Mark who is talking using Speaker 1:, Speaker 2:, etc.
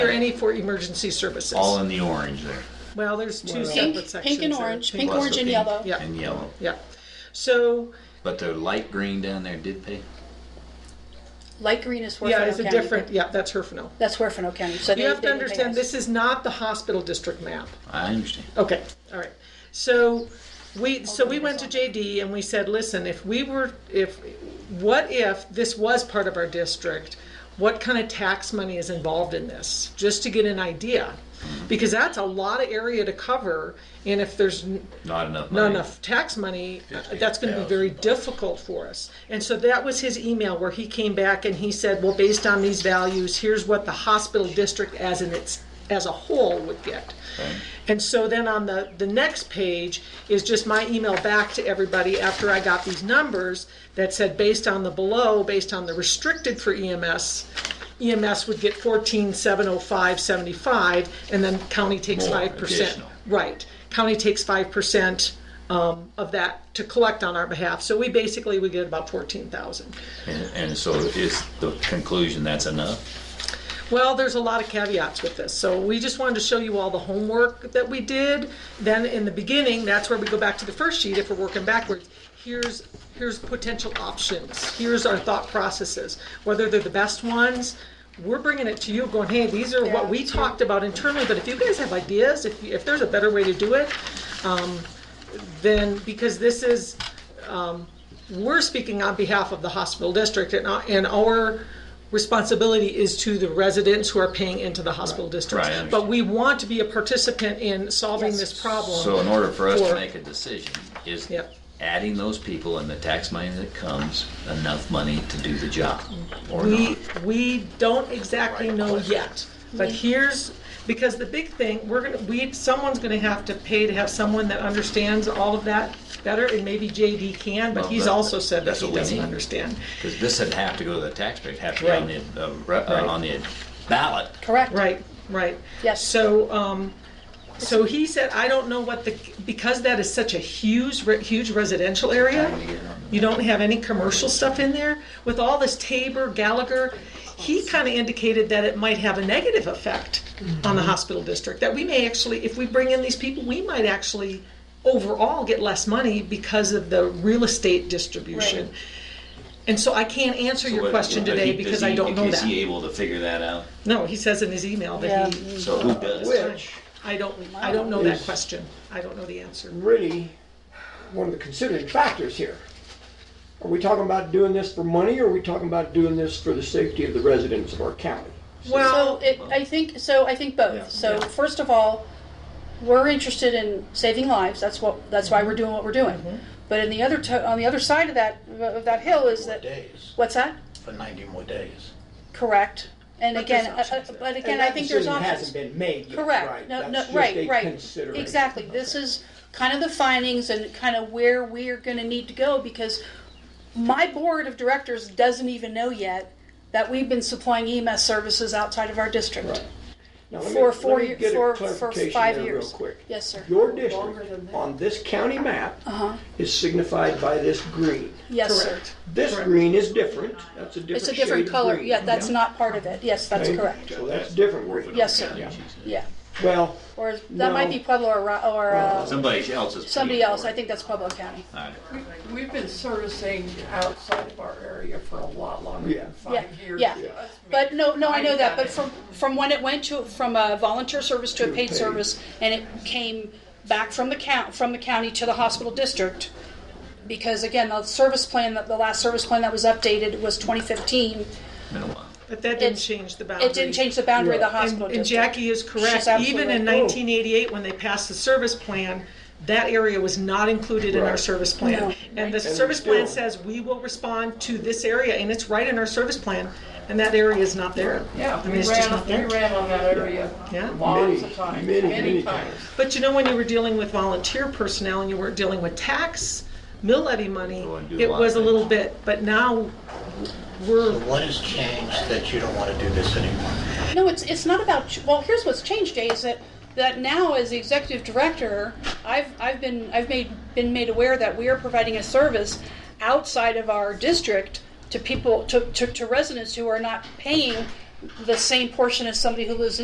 Speaker 1: Are any for emergency services?
Speaker 2: all in the orange there.
Speaker 1: Well, there's two
Speaker 3: Pink,
Speaker 1: separate sections.
Speaker 3: pink and
Speaker 1: there.
Speaker 3: orange, pink,
Speaker 2: Plus
Speaker 3: orange,
Speaker 2: the
Speaker 3: and
Speaker 2: pink
Speaker 3: yellow.
Speaker 1: Yeah.
Speaker 2: And yellow.
Speaker 1: Yeah. So,
Speaker 2: But the light green down there did pay?
Speaker 3: Light green is Huerfano
Speaker 1: yeah, it's a
Speaker 3: County.
Speaker 1: different, yeah, that's Herfinale.
Speaker 3: That's Huerfano County. So they,
Speaker 1: You have
Speaker 3: they
Speaker 1: to
Speaker 3: didn't pay
Speaker 1: understand,
Speaker 3: us.
Speaker 1: this is not the hospital district map.
Speaker 2: I understand.
Speaker 1: Okay, all right. So we, so we went to JD and we said, listen, if we were, if, what if this was part of our district? What kind of tax money is involved in this? Just to get an idea. Because that's a lot of area to cover and if there's n-
Speaker 2: Not enough money.
Speaker 1: not enough tax money, uh, that's going to be very difficult for us. And so that was his email where he came back and he said, well, based on these values, here's what the hospital district as in its, as a whole would get. And so then on the, the next page is just my email back to everybody after I got these numbers that said, based on the below, based on the restricted for E EMS, EMS E would get fourteen seven oh five seventy-five, and then county takes
Speaker 2: More,
Speaker 1: five percent.
Speaker 2: additional.
Speaker 1: Right. County takes five percent um, of that to collect on our behalf. So we basically, we get about fourteen thousand.
Speaker 2: And, and so is the conclusion that's enough?
Speaker 1: Well, there's a lot of caveats with this. So we just wanted to show you all the homework that we did. Then in the beginning, that's where we go back to the first sheet if we're working backwards. Here's, here's potential options. Here's our thought processes, whether they're the best ones. We're bringing it to you going, hey, these are what we talked about internally, but if you guys have ideas, if, you- if there's a better way to do it, then, because this is, um, we're speaking on behalf of the hospital district and, our- and our responsibility is to the residents who are paying into the hospital district.
Speaker 2: Right, I understand.
Speaker 1: But we want to be a participant in solving
Speaker 3: Yes.
Speaker 1: this problem.
Speaker 2: So in order for us
Speaker 1: For-
Speaker 2: to make a decision, is
Speaker 1: Yep.
Speaker 2: adding those people and the tax money that comes enough money to do the job? Or
Speaker 1: Mm-hmm. We,
Speaker 2: not?
Speaker 1: we don't exactly know yet, but here's, because the big thing, we're gonna, we, someone's gonna have to pay to have someone that understands all of that better, and maybe JD can, but
Speaker 2: Well,
Speaker 1: he's
Speaker 2: that-
Speaker 1: also said that
Speaker 2: that's
Speaker 1: he
Speaker 2: what we
Speaker 1: doesn't
Speaker 2: need.
Speaker 1: understand.
Speaker 2: Because this would have to go to the taxpayer, it'd have to be on
Speaker 1: Right.
Speaker 2: the, uh, re- uh, on the ballot.
Speaker 3: Correct.
Speaker 1: Right, right.
Speaker 3: Yes.
Speaker 1: So, um, so he said, I don't know what the, because that is such a huge, re- huge residential area, you don't have any commercial stuff in there, with all this Tabor, Gallagher, he kind of indicated that it might have a negative effect on
Speaker 3: Mm-hmm.
Speaker 1: the hospital district, that we may actually, if we bring in these people, we might actually overall get less money because of the real estate distribution.
Speaker 3: Right.
Speaker 1: And so I can't answer your question
Speaker 2: But he-
Speaker 1: today
Speaker 2: does
Speaker 1: because I
Speaker 2: he-
Speaker 1: don't know
Speaker 2: Is he
Speaker 1: that.
Speaker 2: able to figure that out?
Speaker 1: No, he says in his email
Speaker 3: Yeah.
Speaker 1: that he,
Speaker 2: So who does?
Speaker 4: Which,
Speaker 1: I don't, I don't know that
Speaker 4: Is-
Speaker 1: question. I don't know the answer.
Speaker 4: really, one of the considering factors here. Are we talking about doing this for money, or are we talking about doing this for the safety of the residents of our county?
Speaker 3: So
Speaker 1: Well,
Speaker 3: it, I think so. I think both.
Speaker 4: Yeah.
Speaker 3: So first of all, we're interested in saving lives. That's what. That's why we're doing what we're doing. But in the other to- on the other side of that of that hill is that
Speaker 5: days,
Speaker 3: what's that?
Speaker 5: for 90 more days.
Speaker 3: Correct. And
Speaker 1: But
Speaker 3: again,
Speaker 1: there's
Speaker 3: uh, uh,
Speaker 1: options there.
Speaker 3: but again,
Speaker 4: And
Speaker 3: I
Speaker 4: that
Speaker 3: think there's
Speaker 4: decision
Speaker 3: options.
Speaker 4: Hasn't been made yet.
Speaker 3: Correct. No,
Speaker 4: That's
Speaker 3: no,
Speaker 4: just a
Speaker 3: right, right.
Speaker 4: consideration.
Speaker 3: Exactly. This is kind of the findings and kind of where we're going to need to go because my board of directors doesn't even know yet that we've been supplying EMS services outside of our district.
Speaker 4: Right. Now, let me-
Speaker 3: For four
Speaker 4: let me
Speaker 3: year-
Speaker 4: get a
Speaker 3: for- for
Speaker 4: clarification
Speaker 3: five
Speaker 4: there
Speaker 3: years.
Speaker 4: Real quick.
Speaker 3: Yes, sir.
Speaker 4: Your district on this county map is signified by this green.
Speaker 3: Uh-huh. Yes,
Speaker 1: Correct.
Speaker 3: sir.
Speaker 4: This green is different, that's a different
Speaker 3: It's a
Speaker 4: shade
Speaker 3: different
Speaker 4: of
Speaker 3: color.
Speaker 4: green.
Speaker 3: Yeah, that's not part of it. Yes, that's
Speaker 4: Okay?
Speaker 3: correct.
Speaker 4: So that's different green.
Speaker 3: Yes, sir.
Speaker 4: Yeah.
Speaker 3: Yeah.
Speaker 4: Well,
Speaker 3: Or that might
Speaker 4: No.
Speaker 3: be Pueblo or, Ro- or uh,
Speaker 2: Somebody else is. paying
Speaker 3: somebody else.
Speaker 2: for
Speaker 3: I
Speaker 2: it.
Speaker 3: think that's Pueblo County.
Speaker 2: All right.
Speaker 6: We've been servicing outside of our area for a lot longer
Speaker 4: Yeah.
Speaker 6: than five
Speaker 3: Yeah,
Speaker 6: years.
Speaker 3: yeah.
Speaker 6: That's
Speaker 3: But no, no, I know that, but
Speaker 6: I've
Speaker 3: from, from when it went to, from a volunteer service to a paid
Speaker 4: paid.
Speaker 3: service, and it came back from the count, from the county to the hospital district, because again, the service plan, that the last service plan that was updated was twenty fifteen,
Speaker 2: Been a while.
Speaker 1: but that didn't
Speaker 3: it-
Speaker 1: change the boundary.
Speaker 3: it didn't change the boundary of the
Speaker 4: Yeah.
Speaker 3: hospital
Speaker 1: And- And
Speaker 3: district.
Speaker 1: Jackie is correct.
Speaker 3: She's absolutely
Speaker 1: Even in
Speaker 3: right.
Speaker 4: Oh.
Speaker 1: 1988, when they passed the service plan, that area was not included in our
Speaker 4: Right.
Speaker 1: service
Speaker 3: No.
Speaker 1: plan. And the
Speaker 4: And
Speaker 1: service
Speaker 4: still-
Speaker 1: plan says we will respond to this area, and it's right in our service plan, and that area is not there.
Speaker 6: Yeah,
Speaker 1: I mean,
Speaker 6: we
Speaker 1: it's just
Speaker 6: ran,
Speaker 1: not
Speaker 6: we
Speaker 1: there.
Speaker 6: ran on that area
Speaker 1: Yeah.
Speaker 6: lots
Speaker 4: Many,
Speaker 6: of times,
Speaker 4: many,
Speaker 6: many
Speaker 4: many
Speaker 6: times.
Speaker 1: But you know, when you were dealing with volunteer personnel and you weren't dealing with tax, mill levy money,
Speaker 2: Go and do a
Speaker 1: it
Speaker 2: lot
Speaker 1: was a
Speaker 2: of
Speaker 1: little
Speaker 2: things.
Speaker 1: bit, but now we're,
Speaker 5: What has changed that you don't want to do this anymore?
Speaker 3: No, it's, it's not about, ch- well, here's what's changed, Jay, is that, that now as the executive director, I've, I've been, I've made, been made aware that we are providing a service outside of our district to people, to, to, to residents who are not paying the same portion as somebody who lives in.